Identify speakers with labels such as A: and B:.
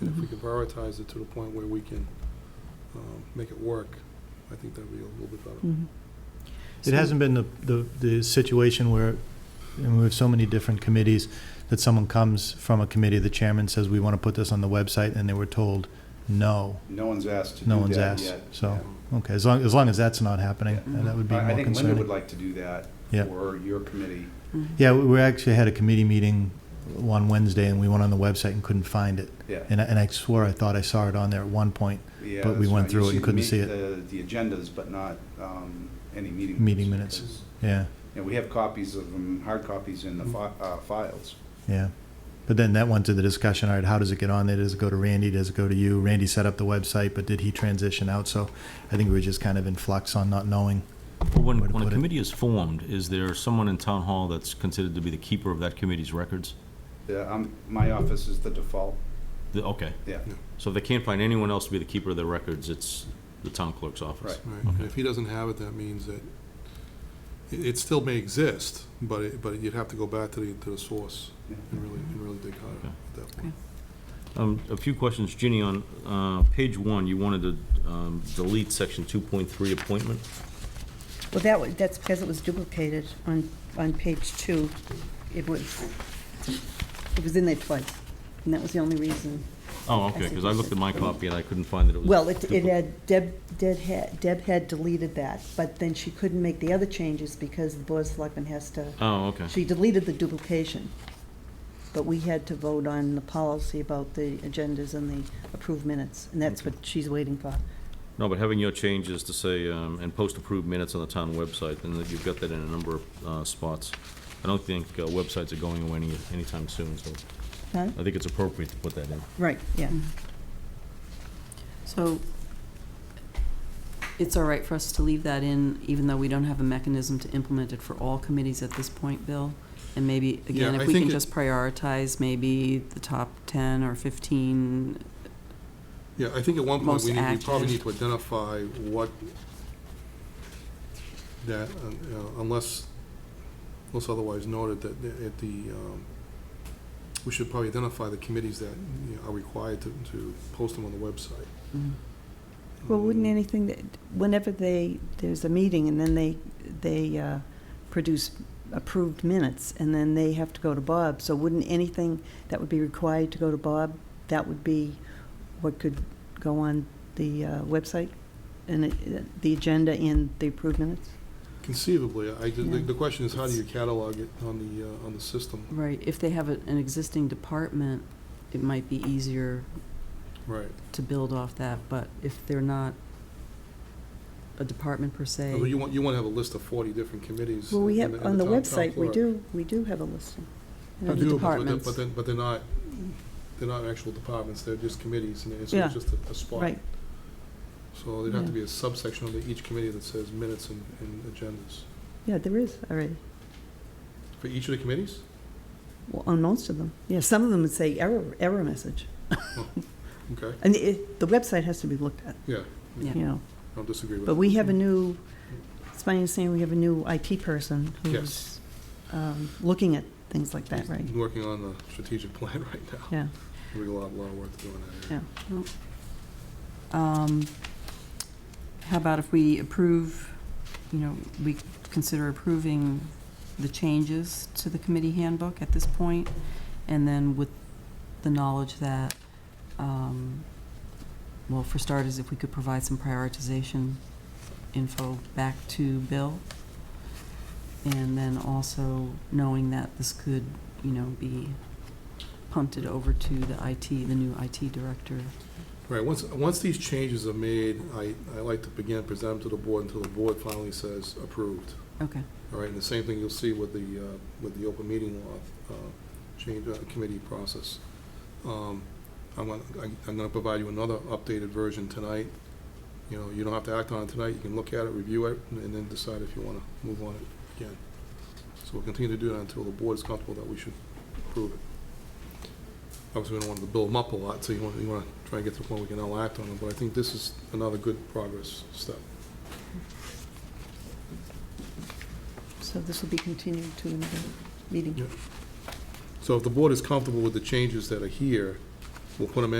A: And if we can prioritize it to the point where we can um, make it work, I think that'd be a little bit better.
B: It hasn't been the, the, the situation where, and we have so many different committees, that someone comes from a committee, the chairman says, we want to put this on the website, and they were told, no.
C: No one's asked to do that
B: No
C: yet.
B: one's asked, so, okay, as long, as long as that's not happening,
C: Yeah.
B: uh, that would be
C: I I
B: more
C: think Linda would
B: concerning.
C: like to do that
B: Yeah.
C: for your committee.
B: Yeah, we- we actually had a committee meeting on Wednesday, and we went on the website and couldn't find it.
C: Yeah.
B: And I, and I swore I thought I saw it on there at one point,
C: Yeah,
B: But we
C: that's
B: went
C: right.
B: through
C: You
B: it and couldn't
C: the
B: see
C: meet- The the agendas, but not um, any meeting.
B: Meeting minutes. yeah,
C: And we have copies of them, hard copies in the fi-
B: Mm-hmm.
C: uh, files.
B: yeah. But then that went to the discussion, all right, how does it get on there? Does it go to Randy? Does it go to you? Randy set up the website, but did he transition out? So I think we were just kind of in flux on not knowing.
D: Well, When,
B: Way to
D: when a
B: put it.
D: committee is formed, is there someone in town hall that's considered to be the keeper of that committee's records?
C: The- um, My office is the default,
D: The- Okay,
C: yeah.
D: so if they can't find anyone else to be the keeper of their records, it's the town clerk's office.
A: Right, and if he doesn't have it, that means that it, it still may exist, but it, but you'd have to go back to the, to the source
C: Yeah.
A: and really, and really dig hard at that point.
D: Um, a few questions, Ginny, on, uh, page one, you wanted to, um, delete section two point three appointment?
E: Well, that was, that's because it was duplicated on, on page two. It was, it was in there twice, and that was the only reason.
D: Oh, okay, because I looked at my copy and I couldn't find that it was.
E: Well, it, it
D: dupli-
E: had, Deb, Deb had, Deb had deleted that, but then she couldn't make the other changes because the board of selectmen has to,
D: Oh, okay,
E: she deleted the duplication. But we had to vote on the policy about the agendas and the approved minutes, and that's what she's waiting for.
D: no, but having your changes to say, um, and post approved minutes on the town website, and that you've got that in a number of, uh, spots. I don't think, uh, websites are going away any, anytime soon, so
E: Huh?
D: I think it's appropriate to put that in.
E: Right, yeah.
F: Mm. So it's all right for us to leave that in, even though we don't have a mechanism to implement it for all committees at this point, Bill? And maybe, again,
A: Yeah, I
F: if we
A: think
F: can
A: it-
F: just prioritize maybe the top 10 or 15,
A: Yeah, I think at one point,
F: Most
A: we need, we probably
F: active.
A: need to identify what that, uh, uh, unless, unless otherwise noted, that the- at the, um, we should probably identify the committees that you know, are required to, to post them on the website.
E: Well, wouldn't
A: Um,
E: anything that, whenever they, there's a meeting and then they, they uh, produce approved minutes and then they have to go to Bob, so wouldn't anything that would be required to go to Bob, that would be what could go on the uh, website? And it- the agenda and the approved minutes?
A: Conceivably, I, did- the,
F: Yeah.
A: the question is, how do you catalog it on the, uh, on the system?
F: right, if they have a- an existing department, it might be easier
A: Right.
F: to build off that, but if they're not a department per se.
A: Although You want, you want to have a list of forty different committees.
E: Well, we
A: and-
E: have,
A: and
E: on the
A: town- town
E: website, we
A: clerk.
E: do, we do have a listing.
A: I do,
F: the
A: but- but they're-
F: departments.
A: But then, but they're not, they're not actual departments, they're just committees, and it's
E: Yeah.
A: it's just a- a spot.
E: Right,
A: So there'd have to
F: Yeah.
A: be a subsection under each committee that says minutes and, and agendas.
E: yeah, there is already,
A: For each of the committees?
E: Well, on most of them. Yeah, some of them would say error, error message.
A: Okay,
E: And it, the website has to be looked at,
A: yeah,
F: Yeah.
E: you know.
A: I don't disagree with
E: But
A: that.
E: we have a new, it's my understanding, we have a new IT person who's
A: Yes.
E: um, looking at things like that, right?
A: He's Working on the strategic plan right now.
E: Yeah.
A: We got a lot, lot of work to do on that area.
F: Um, How about if we approve, you know, we consider approving the changes to the committee handbook at this point, and then with the knowledge that, um, well, for starters, if we could provide some prioritization info back to Bill, and then also knowing that this could, you know, be punted over to the IT, the new IT director.
A: Right, once, once these changes are made, I, I like to begin, present them to the board until the board finally says approved.
F: Okay.
A: All right, and the same thing you'll see with the, uh, with the open meeting law, uh, change, uh, committee process. Um, I'm gonna, I'm I'm gonna provide you another updated version tonight. You know, you don't have to act on it tonight, you can look at it, review it, and then decide if you wanna move on it again. So we'll continue to do that until the board is comfortable that we should approve it. Obviously, we don't want to build them up a lot, so you wanna, you wanna try and get to the point we can all act on them, but I think this is another good progress step.
E: So this will be continued to another meeting.
A: Yeah. So if the board is comfortable with the changes that are here, we'll put them in.